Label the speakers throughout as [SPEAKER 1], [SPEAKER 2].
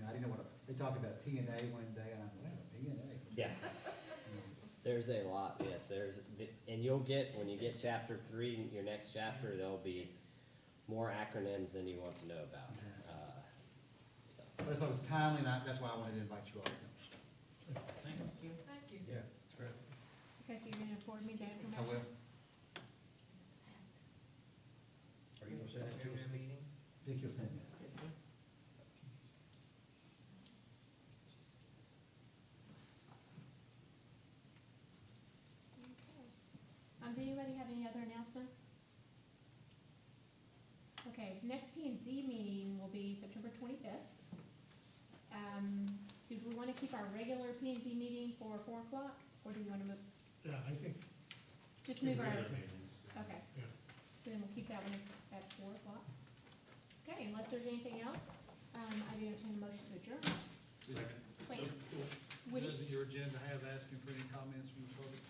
[SPEAKER 1] know, I didn't know what, a- they talked about P and A one day, and I'm, what is a P and A?
[SPEAKER 2] Yeah, there's a lot, yes, there's, and you'll get, when you get chapter three, your next chapter, there'll be more acronyms than you want to know about. Uh, so,
[SPEAKER 1] But it's like it's timely, and I, that's why I wanted to invite you all.
[SPEAKER 3] Thanks.
[SPEAKER 4] Thank you.
[SPEAKER 1] Yeah.
[SPEAKER 5] Okay, so you're gonna afford me that
[SPEAKER 1] I
[SPEAKER 5] information?
[SPEAKER 1] will.
[SPEAKER 6] Are you gonna send it to us?
[SPEAKER 3] meeting?
[SPEAKER 1] Vic, you'll send me that.
[SPEAKER 5] Okay. Um, does anybody have any other announcements? Okay, next P and Z meeting will be September twenty-fifth. Um, do we wanna keep our regular P and Z meeting for four o'clock, or do we wanna move,
[SPEAKER 7] Yeah, I think.
[SPEAKER 5] just move our,
[SPEAKER 7] Yeah.
[SPEAKER 5] okay.
[SPEAKER 7] Yeah.
[SPEAKER 5] So then we'll keep that one at- at four o'clock. Okay, unless there's anything else, um, I do entertain a motion to adjourn. Wait, Woody,
[SPEAKER 8] Does your agenda have asking for any comments from the public?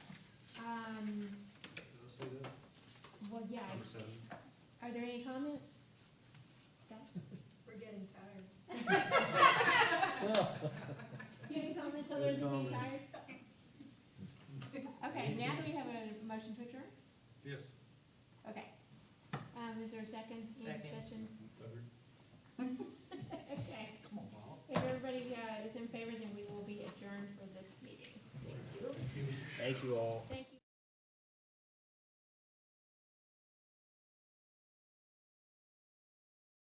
[SPEAKER 5] um,
[SPEAKER 8] Did I say that?
[SPEAKER 5] well, yeah,
[SPEAKER 6] Number seven.
[SPEAKER 5] are there any comments? Guys?
[SPEAKER 4] We're getting tired.
[SPEAKER 5] Do you have any comments other than being tired? Okay, now do we have a motion to adjourn?
[SPEAKER 8] Yes.
[SPEAKER 5] Okay. Um, is there a second? Any
[SPEAKER 3] Second.
[SPEAKER 5] discussion?
[SPEAKER 6] Third.
[SPEAKER 5] Okay.
[SPEAKER 1] Come on, Bob.
[SPEAKER 5] If everybody, uh, is in favor, then we will be adjourned for this meeting.
[SPEAKER 2] Thank you all.
[SPEAKER 5] Thank